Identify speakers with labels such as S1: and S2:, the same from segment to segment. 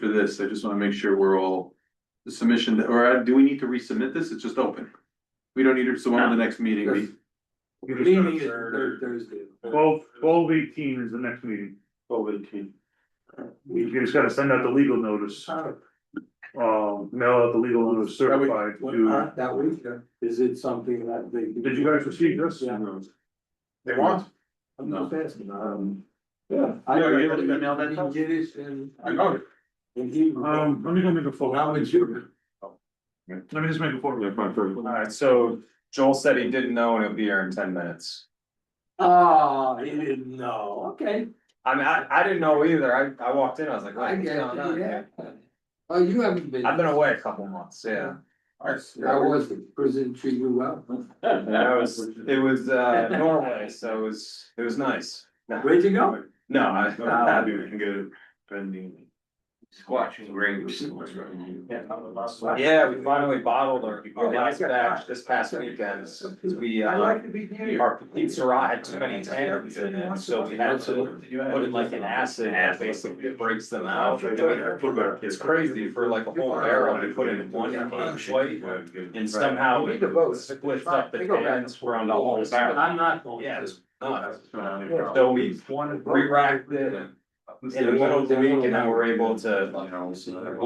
S1: for this, I just wanna make sure we're all, the submission, that- or uh, do we need to resubmit this? It's just open. We don't need it, so on the next meeting, we-
S2: Meeting is third Thursday.
S3: Twelve, twelve eighteen is the next meeting.
S2: Twelve eighteen.
S3: We just gotta send out the legal notice, um, mail out the legal notice certified to,
S2: That week, uh, is it something that they?
S3: did you guys receive this?
S2: Yeah.
S1: They want?
S2: I'm just asking, um, yeah. I
S1: Yeah, you able to email that out?
S2: didn't get it and.
S1: I got it.
S2: And he.
S3: Um, let me go make a phone.
S2: How would you?
S3: Let me just make a phone.
S4: Alright, so Joel said he didn't know and he'll be here in ten minutes.
S2: Oh, he didn't know, okay,
S4: I mean, I, I didn't know either. I, I walked in, I was like,
S2: I
S4: what's
S2: get
S4: going
S2: it,
S4: on?
S2: yeah.
S4: here?
S2: Oh, you haven't been.
S4: I've been away a couple months, yeah.
S2: I was, the prison treat you well.
S4: And I was, it was, uh, Norway, so it was, it was nice. No,
S2: Where'd you go?
S4: I,
S1: Uh,
S4: I-
S1: Watching rings.
S4: yeah, we finally bottled our, our
S2: Oh, Yeah, I
S4: last
S2: got
S4: batch
S2: that.
S4: this past weekend. 'cause We,
S2: I
S4: uh,
S2: like to be near you.
S4: our pizzeria had too many tannins in it, so we had to put in like an acid that basically breaks them out. It's crazy for like a whole barrel, we put in one each plate. And somehow
S2: We need to vote.
S4: it splits up the
S2: They go back
S4: cans from the whole
S2: But
S4: barrel.
S2: I'm not going.
S4: Yeah,
S2: to.
S4: it's nuts. So we re-racked it in the middle of the week and now we're able to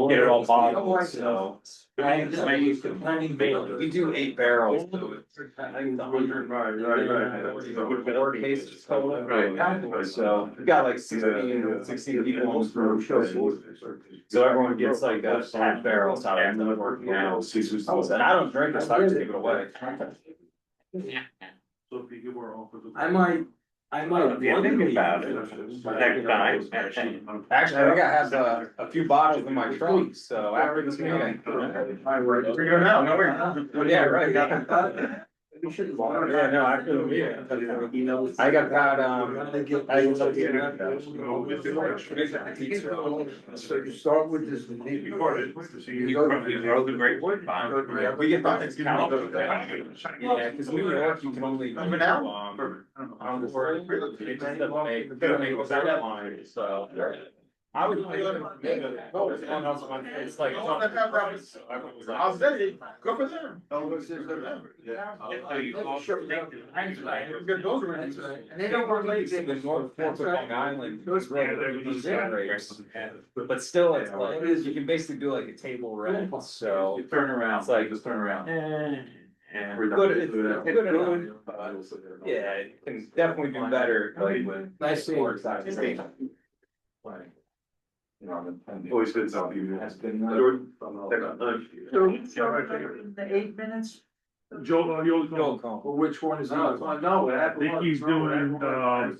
S4: get it all bottled, so.
S2: I am just making the planning board.
S4: We do eight barrels, so it's, I think the hundred. Forty cases total.
S1: Right.
S4: So we got like 16 16 people on this road show. So everyone gets like a half barrel, so I'm not working out. And I don't drink, it, so I just give it away.
S2: I might, I might.
S1: Yeah, think
S2: one
S1: about
S2: day-
S1: it. Next time.
S4: Actually, I think I have a, a few bottles in my trunk, so after this meeting. Well, yeah, right.
S2: We should-
S4: Yeah, no, I feel weird. I got about, um, I can tell you.
S2: So you start with this.
S4: We get the it's kind of- Yeah, cause New York, you can only. do,
S1: Over now?
S4: um, On the word. It just doesn't make, it doesn't make that line, so. I would. It's like.
S1: I'll say it, go for them.
S2: And they don't work late.
S4: The North Fork of Long Island.
S2: Those-
S4: Right, they're these generators. But still, it's like, you can basically do like a table rent, so.
S1: Turn around,
S4: It's like-
S1: turn around.
S4: Good, it's good enough, but yeah, it can definitely do better, like with.
S2: Nice seeing
S4: Or
S2: you.
S4: side of things. You know, and it
S1: Always been something.
S4: has been, uh,
S5: The eight minutes?
S3: Joe, uh, you'll go.
S4: Joel Cohen.
S2: Well, which one is?
S1: No,
S2: yours?
S1: no, what
S3: I think he's doing, uh, the, uh,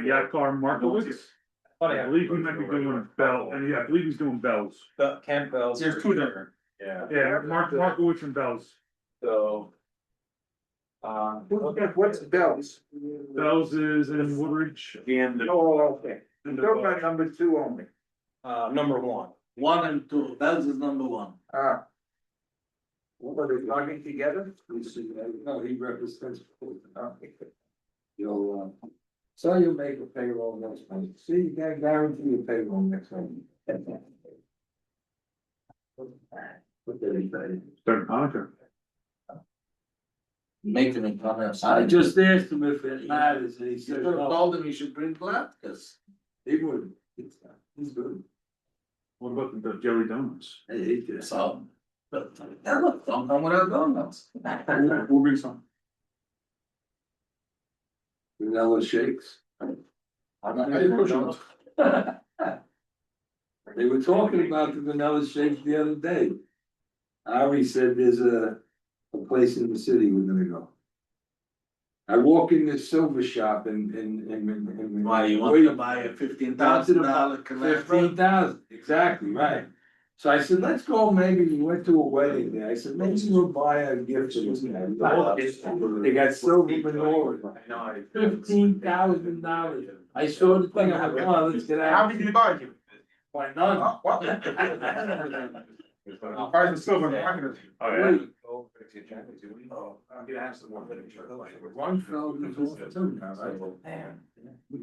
S3: Yakar Markowitz.
S4: Funny,
S3: I believe he might be doing Bell, and yeah, I believe he's doing Bells.
S4: the Campbell's.
S1: There's two there.
S4: Yeah,
S3: Yeah, Mark, Markowitz and Bells.
S4: so. Uh.
S2: What's Bell's?
S3: Bells is in Woodridge.
S1: And the
S2: Oh, okay.
S3: and the-
S2: They're my number two only.
S4: Uh, number one.
S1: one and two, that's is number one.
S2: Ah. What are they logging together? No, he represents. You'll, uh, so you'll make a payroll next month. See, you can guarantee a payroll next month. What did he say?
S3: Third contract.
S5: Make them in comments.
S2: I just asked him if it matters, and he
S5: You
S2: said,
S5: could have
S2: no,
S5: told them you should bring latkes.
S2: he wouldn't. It's, uh, He's good.
S3: What about the Jelly Donuts?
S2: I hate this.
S5: So. But that looked, don't know what I was going on.
S1: We'll bring some.
S2: Vanilla shakes.
S5: I'm not gonna push them.
S2: They were talking about the vanilla shakes the other day. Ari said there's a, a place in the city we're gonna go. I walk in this silver shop and, and, and, and.
S5: Why, you want to buy a fifteen thousand dollar
S2: Fifteen
S5: collateral?
S2: thousand, exactly, right. So I said, let's go, maybe, we went to a wedding there, I said, maybe we'll buy a gift. or something." They got silver menorah,
S1: I know, I.
S2: fifteen thousand dollars. I saw the thing, I went, oh, let's get out.
S1: did you buy it?
S2: Why not?
S4: Uh,
S1: Price is silver, I'm not gonna.
S2: Wait,
S1: Oh, I'm gonna have some more literature.
S2: One fell in the pool, two now, right?
S5: Man.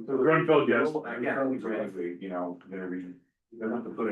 S3: Grunfeld, yes.
S1: I can't really, you know, they're. They're not to put